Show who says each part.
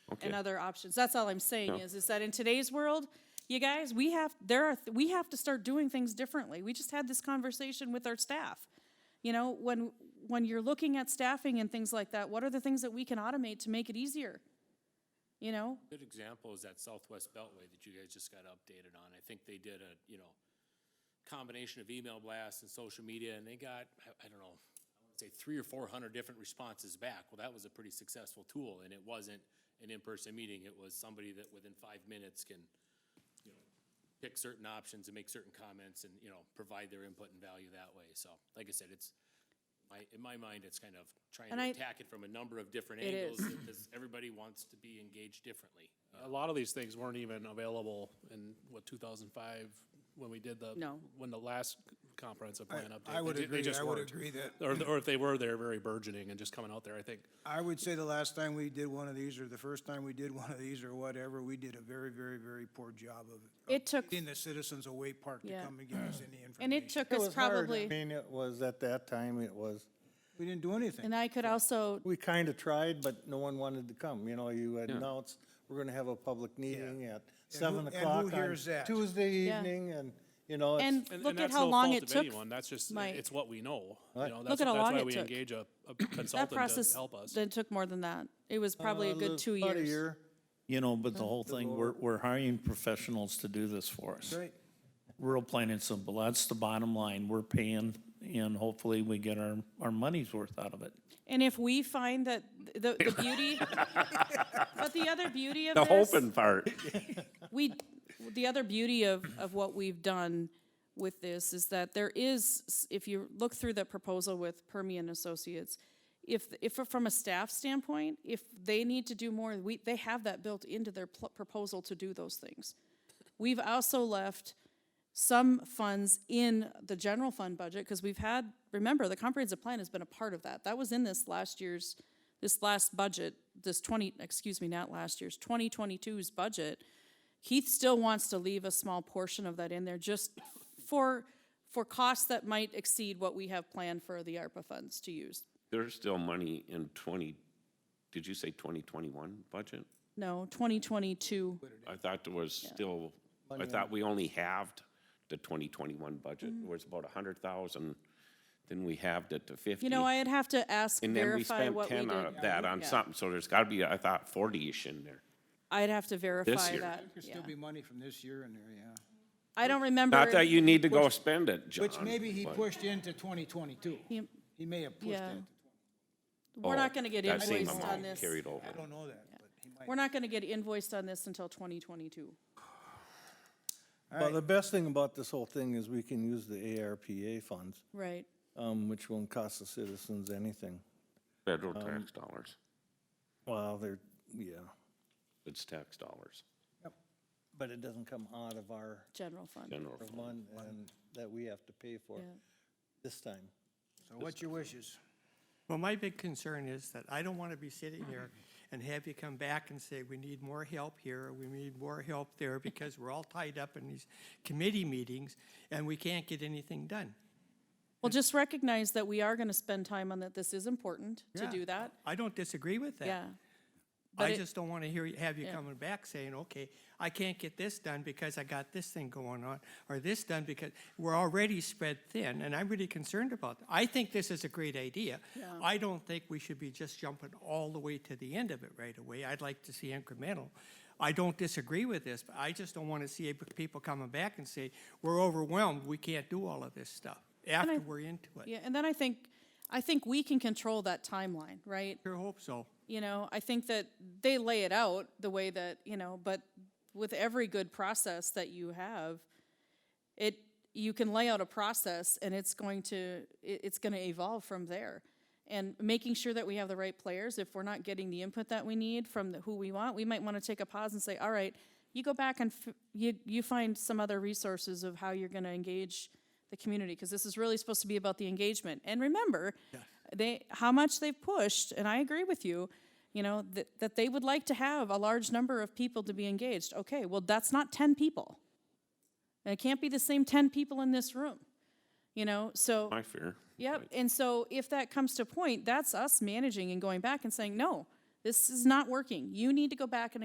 Speaker 1: and
Speaker 2: Okay.
Speaker 1: other options. That's all I'm saying
Speaker 2: No.
Speaker 1: is, is that in today's world, you guys, we have, there are, th- we have to start doing things differently. We just had this conversation with our staff. You know, when, when you're looking at staffing and things like that, what are the things that we can automate to make it easier? You know,
Speaker 3: Good example is that Southwest Beltway that you guys just got updated on. I think they did a, you know, combination of email blasts and social media, and they got, I, I don't know, I would say three or four hundred different responses back. Well, that was a pretty successful tool, and it wasn't an in-person meeting. It was somebody that within five minutes can, you know, pick certain options and make certain comments and, you know, provide their input and value that way. So, like I said, it's, my, in my mind, it's kind of trying
Speaker 1: And
Speaker 3: to
Speaker 1: I-
Speaker 3: attack it from a number of different
Speaker 1: It
Speaker 3: angles
Speaker 1: is.
Speaker 3: because everybody wants to be engaged differently.
Speaker 4: A lot of these things weren't even available in, what, two thousand five, when we did the.
Speaker 1: No.
Speaker 4: When the last comprehensive plan update.
Speaker 5: I would
Speaker 4: They ju- they
Speaker 5: agree-
Speaker 4: just
Speaker 5: I would
Speaker 4: weren't.
Speaker 5: agree that-
Speaker 4: Or, th- or if they were, they're very burgeoning and just coming out there, I think.
Speaker 5: I would say the last time we did one of these, or the first time we did one of these, or whatever, we did a very, very, very poor job of. of
Speaker 1: It took-
Speaker 5: Getting the citizens of Wake Park to
Speaker 1: Yeah.
Speaker 5: come and give us any information.
Speaker 1: and it took
Speaker 6: It
Speaker 1: us
Speaker 6: was hard. I
Speaker 1: probably,
Speaker 6: mean, it was, at that time, it was,
Speaker 5: We didn't do anything.
Speaker 1: and I could also,
Speaker 6: we kind of tried, but no one wanted to come. You know, you announced, we're going to have a public meeting at seven
Speaker 5: and who
Speaker 6: o'clock on
Speaker 5: hears that?
Speaker 6: Tuesday
Speaker 1: Yeah.
Speaker 6: evening, and, you know, it's.
Speaker 1: and
Speaker 4: And-
Speaker 1: look
Speaker 4: and
Speaker 1: at
Speaker 4: that's
Speaker 1: how
Speaker 4: no
Speaker 1: long
Speaker 4: fault
Speaker 1: it
Speaker 4: of
Speaker 1: took.
Speaker 4: anyone, That's just,
Speaker 1: Mike.
Speaker 4: it's what we know. You
Speaker 6: Right.
Speaker 4: know,
Speaker 1: Look
Speaker 4: that's,
Speaker 1: at how
Speaker 4: that's
Speaker 1: long
Speaker 4: why
Speaker 1: it
Speaker 4: we
Speaker 1: took.
Speaker 4: engage a a
Speaker 1: That
Speaker 4: consultant
Speaker 1: process,
Speaker 4: to help us.
Speaker 1: then took more than that. It was probably a
Speaker 6: uh,
Speaker 1: good two
Speaker 6: about a
Speaker 1: years.
Speaker 6: year.
Speaker 7: You know, but the whole thing, we're, we're hiring professionals to do this for us.
Speaker 5: Right.
Speaker 7: Real plain and simple. That's the bottom line. We're paying and hopefully we get our, our money's worth out of it.
Speaker 1: And if we find that th- the, the beauty, but the other beauty of
Speaker 2: The
Speaker 1: this.
Speaker 2: hoping part.
Speaker 1: we the other beauty of of what we've done with this is that there is s- if you look through the proposal with Permian Associates if if from a staff standpoint if they need to do more we they have that built into their pl- proposal to do those things we've also left some funds in the general fund budget because we've had remember the comprehensive plan has been a part of that that was in this last year's this last budget this 20 excuse me not last year's 2022's budget Keith still wants to leave a small portion of that in there just for, for costs that might exceed what we have planned for the ARPA funds to use.
Speaker 2: There's still money in twenty, did you say twenty twenty-one budget?
Speaker 1: No, twenty twenty-two,
Speaker 2: I thought there was still, I thought we only halved the twenty twenty-one budget,
Speaker 1: Mm.
Speaker 2: it was about a hundred thousand, then we halved it to fifty.
Speaker 1: you know, I'd have to ask,
Speaker 2: And then we
Speaker 1: verify
Speaker 2: spent
Speaker 1: what we
Speaker 2: ten of
Speaker 1: did.
Speaker 2: that on
Speaker 1: Yeah.
Speaker 2: something, so there's gotta be, I thought, forty-ish in there.
Speaker 1: I'd have to verify
Speaker 2: year.
Speaker 1: that,
Speaker 5: There'll
Speaker 1: yeah.
Speaker 5: still be money from this year in there, yeah.
Speaker 1: I don't remember.
Speaker 2: Not that you need to go spend it, John.
Speaker 5: Which maybe he
Speaker 2: but-
Speaker 5: pushed into twenty twenty-two.
Speaker 1: Yep.
Speaker 5: He may have pushed
Speaker 1: Yeah.
Speaker 5: into,
Speaker 1: We're not gonna get
Speaker 2: Oh, that same
Speaker 1: invoiced on
Speaker 2: amount
Speaker 1: this.
Speaker 2: Carried over.
Speaker 5: I don't know that, but he might.
Speaker 1: We're not gonna get invoiced on this until twenty twenty-two.
Speaker 6: Well, the best thing about this whole thing is we can use the ARPA funds,
Speaker 1: Right.
Speaker 6: um, which won't cost the citizens anything.
Speaker 2: Federal tax
Speaker 5: Um,
Speaker 2: dollars,
Speaker 6: Well, they're, yeah,
Speaker 2: it's tax dollars,
Speaker 6: but it doesn't come out of our
Speaker 1: General fund,
Speaker 2: general fund.
Speaker 6: fund and that we have to pay for
Speaker 1: yeah.
Speaker 6: this time.
Speaker 5: So what's your wishes?
Speaker 8: Well, my big concern is that I don't want to be sitting here and have you come back and say, we need more help here, or we need more help there, because we're all tied up in these committee meetings and we can't get anything done.
Speaker 1: Well, just recognize that we are gonna spend time on that. This is important to
Speaker 8: Yeah,
Speaker 1: do that,
Speaker 8: I don't disagree with that.
Speaker 1: yeah. but
Speaker 8: I
Speaker 1: it-
Speaker 8: just don't want to hear, you- have you coming back saying, okay, I can't get this done because I got this thing going on, or this done because, we're already spread thin, and I'm really concerned about that. I think this is a great idea. I don't think we should be just jumping all the way to the end of it right away. I'd like to see incremental. I don't disagree with this, but I just don't want to see ab- people coming back and say, we're overwhelmed, we can't do all of this stuff, after we're into it.
Speaker 1: Yeah, and then I think, I think we can control that timeline, right?
Speaker 8: Sure hope so.
Speaker 1: You know, I think that they lay it out the way that, you know, but with every good process that you have, it, you can lay out a process and it's going to, it, it's gonna evolve from there. And making sure that we have the right players, if we're not getting the input that we need from the- who we want, we might wanna take a pause and say, all right, you go back and f- you, you find some other resources of how you're gonna engage the community, cause this is really supposed to be about the engagement. And remember, they, how much they've pushed, and I agree with you, you know, that, that they would like to have a large number of people to be engaged. Okay, well, that's not ten people. And it can't be the same 10 people in this room, you know? So,
Speaker 2: My fear.
Speaker 1: yep. And so if that comes to point, that's us managing and going back and saying, no, This is not working. You need to go back and